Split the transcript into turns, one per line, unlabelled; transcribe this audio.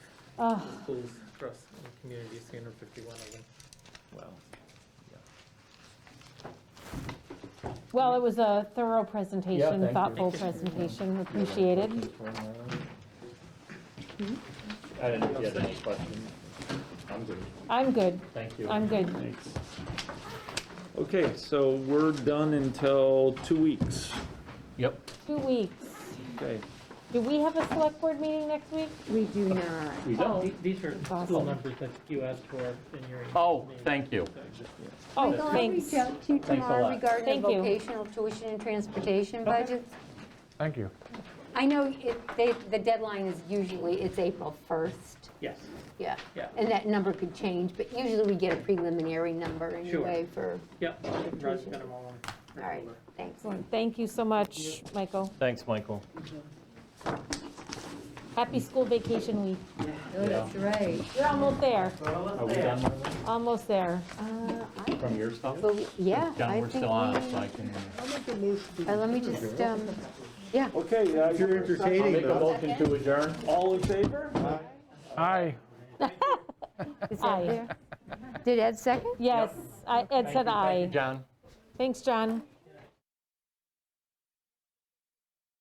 Oh,
schools across the community, three hundred fifty-one of them.
Well,
well, it was a thorough
Yeah, thank
presentation,
you.
thoughtful
Thank you.
presentation, appreciated.
I didn't, know if you had any questions? I'm good,
I'm good,
thank you.
I'm good.
Thanks.
Okay, so we're done until two weeks.
Yep.
Two weeks.
Okay,
Do we have a select board meeting next week?
We do not.
We
Oh.
don't.
The- These are school
Awesome.
numbers that you asked for in your.
Oh,
meeting.
thank you.
Oh,
Michael, I'll
thanks.
reach out to
a
you tomorrow
lot.
regarding
Thank
the
you.
vocational tuition and transportation budget.
Thank you.
I know it, they, the deadline is usually, it's April 1st,
Yes,
yeah.
Yeah.
And that number could change, but usually we get a preliminary number anyway for,
yep, Rod's got them all on.
all right, thanks.
Excellent. Thank you so much, Michael.
Thanks, Michael.
Happy school vacation week.
that's
right.
You're almost there,
Are we done
almost there.
from your stuff?
Uh, Yeah,
John,
I
we're
think
still on, it, so I
we,
can.
uh, let me just, um, yeah.
Okay. uh,
You're
I'll
entertaining
make a
though.
motion to adjourn.
All in favor?
Aye.
is that
Aye.
there? Did Ed second?
Yes, I- Ed said aye.
John?
Thanks, John.